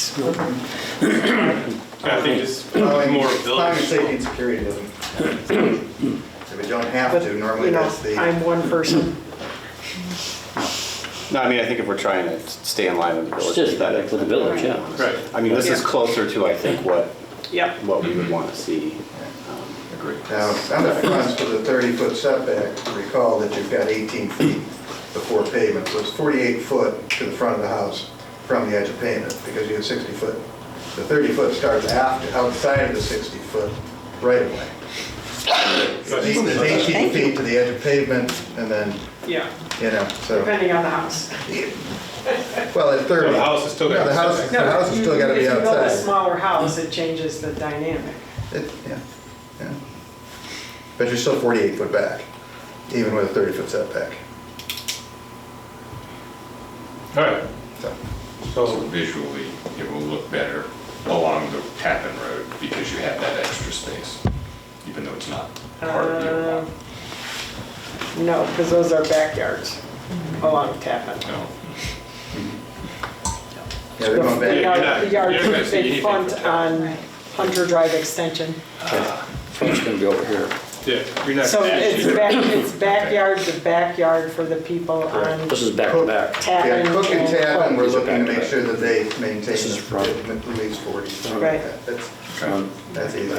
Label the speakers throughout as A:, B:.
A: skill.
B: I think it's probably more
C: Climate safety
B: village.
C: and security doesn't. If we don't have to, normally
D: You know,
C: that's the.
D: I'm one person.
E: No, I mean, I think if we're trying to stay in line with the
F: It's
E: village
F: just
E: aesthetic.
F: for the village, yeah.
B: Right.
E: I mean, this is
D: Yeah.
E: closer to, I think, what,
D: Yep.
E: what we would want to see.
B: Agree.
C: Now, on uh, the fronts for the 30-foot setback, recall that you've got 18 feet before pavement, so it's 48 foot to the front of the house from the edge of pavement, because you have 60 foot. The 30 foot starts after, outside of the 60 foot right of way. It's eight- it's 18 feet to the edge of pavement, and then,
D: Yeah,
C: you know, so,
D: depending on the house.
C: well, at 30.
B: No, the house is still
C: No,
B: got-
C: the house, the
D: No,
C: house has still got to be
D: If you build a
C: outside.
D: smaller house, it changes the dynamic.
C: It- yeah, yeah. But you're still 48 foot back, even with a 30 foot setback.
B: All right,
C: So,
G: So
B: so,
G: visually, it will look better along the Tappan Road because you have that extra space, even though it's not part of your
D: Uh,
G: lot.
D: No, because those are backyards along Tappan.
G: No,
C: Yeah, they're going
D: The
C: back.
B: you're
D: yard-
B: not-
D: the yard,
B: you're not gonna see
D: they
B: anything
D: front
B: from
D: on Hunter Drive Extension.
F: So it's gonna be over here.
B: yeah, you're not.
D: So it's
B: actually-
D: back, it's backyard to backyard for the people on
F: This is back to back.
C: Yeah,
D: Tappan.
C: Cook and Tappan, we're
F: These are
C: looking to
F: back to
C: make
F: back.
C: sure that they maintain
F: This is
C: the-
F: front.
C: at least 40. something
D: Right.
C: like that. That's,
F: Um,
C: that's easy.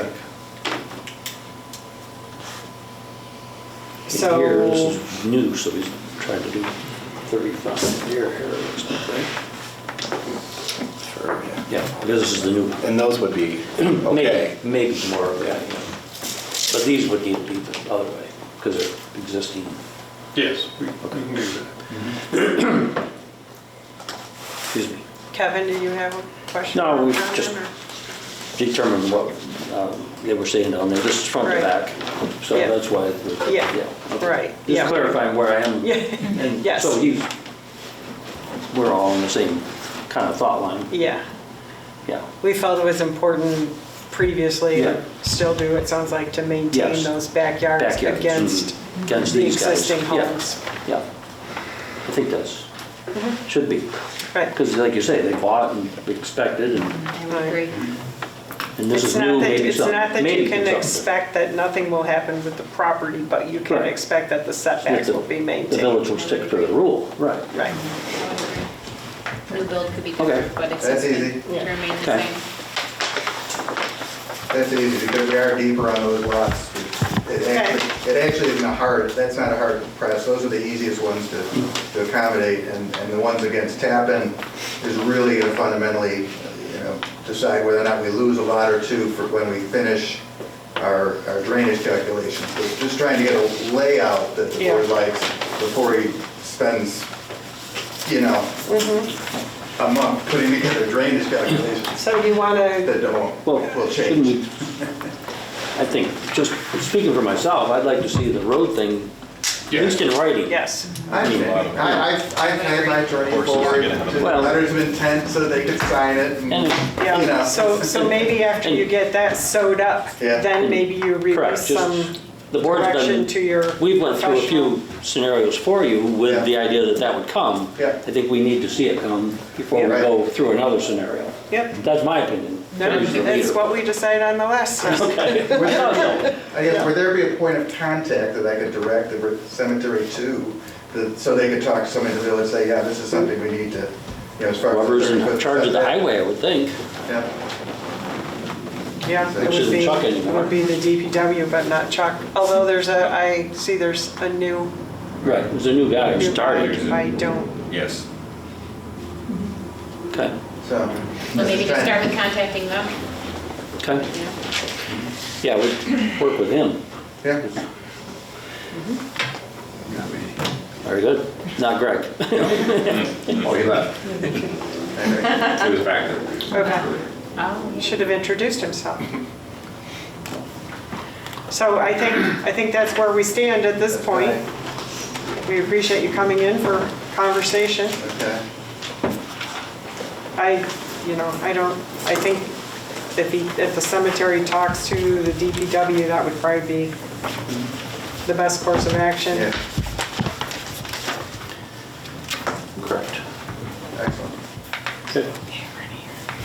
D: So-
F: Here, this is new, so he's trying to do 35 here, here, it looks like, right?
E: Sure, yeah.
F: Yeah, because this is the new,
E: And those would be okay.
F: maybe, maybe tomorrow, yeah, yeah. But these would need to be the other way, because they're existing.
B: Yes, we we can do that.
F: Excuse me.
D: Kevin, do you have a question?
F: No,
D: or
F: we
D: comment,
F: just-
D: or-
F: Determine what um, they were saying down there, this is front to
D: Right.
F: back, so
D: Yeah.
F: that's why. the-
D: Yeah,
F: okay.
D: right, yeah.
F: Just clarifying where I am.
D: Yeah,
F: And
D: yes.
F: So you, we're all on the same kind of thought line,
D: Yeah,
F: yeah.
D: we felt it was important previously,
F: Yeah.
D: still do, it sounds like, to maintain
F: Yes.
D: those backyards
F: Backyards.
D: against
F: Mhm. Against
D: the
F: these guys.
D: existing
F: Yeah.
D: homes. Mm-hmm.
F: Yeah, I think that's, should be,
D: Right,
F: because like you say, they bought and expected, and
H: I would agree.
F: and this
D: it's
F: is
D: not
F: new,
D: that,
F: maybe
D: it's
F: something.
D: not that
F: maybe
D: you can
F: something.
D: expect that nothing will happen with the property, but you can
F: Right.
D: expect that the setbacks
F: The-
D: will be
F: The
D: maintained.
F: village will stick to the rule, right.
D: Right,
H: The build could be
F: Okay.
H: different, but it's
C: That's easy.
H: remain the
F: Okay.
H: same.
C: That's easy, because we are deeper on those lots. It actually, it actually isn't a hard, that's not a hard press, those are the easiest ones to to accommodate, and, and the ones against Tappan is really going to fundamentally, you know, decide whether or not we lose a lot or two for when we finish our our drainage calculations. But just trying to get a layout that the board
D: Yeah.
C: likes before he spends, you know, a month putting together drainage calculations
D: so you want to,
C: that don't,
F: Well,
C: will
F: shouldn't we,
C: change.
F: I think, just speaking for myself, I'd like to see the road thing, at
B: Yeah.
F: least in writing.
D: yes,
C: I understand. I, I've, I've had my journey
G: Horses are
C: forward,
G: gonna have
F: a- Well-
C: letters of intent so they could sign it and,
F: And-
C: you
D: yeah,
C: know.
D: so, so maybe after you get that sewed up,
C: Yeah.
D: then maybe you
F: Correct, just-
D: release some
F: the board's done-
D: direction to your
F: We've went through a
D: professional-
F: few scenarios for you
C: Yeah.
F: with the idea that that would come.
C: Yeah.
F: I think we need to see it come before we
C: Yeah.
F: go through another scenario.
D: Yep.
F: That's my opinion.
D: No,
F: As the
D: That's
F: leader.
D: what we decided on the last time.
F: Okay.
C: Would there-
F: No,
C: I guess, would there be a point of contact that I could direct the cemetery to, that- so they could talk to somebody in the village, say, yeah, this is something we need to, you know, as far as.
F: Whoever's in
C: 30-foot
F: charge of the
C: setback.
F: highway, I would think.
C: Yeah,
D: Yeah, it
F: Which
D: would
F: isn't
D: be,
F: Chuck
D: it
F: anymore.
D: would be the DPW, but not Chuck. Although there's a, I see there's a new,
F: Right. There's a new guy who
D: new
F: started.
D: bike. I don't,
G: yes.
F: Okay,
C: so.
H: Well, maybe
C: just
H: just start
C: trying-
H: with contacting them,
F: okay.
H: you
F: Yeah,
H: know?
F: we work with him.
C: Yeah.
F: Very good. Not Greg.
G: Oh, he left. He was back there.
D: okay,
H: Oh, yeah.
D: should have introduced himself. So I think, I think that's where we stand at this point. We appreciate you coming in for conversation.
C: Okay.
D: I, you know, I don't, I think if he, if the cemetery talks to the DPW, that would probably be the best course of action.
C: Yeah,
F: Correct.
C: excellent.
F: Okay.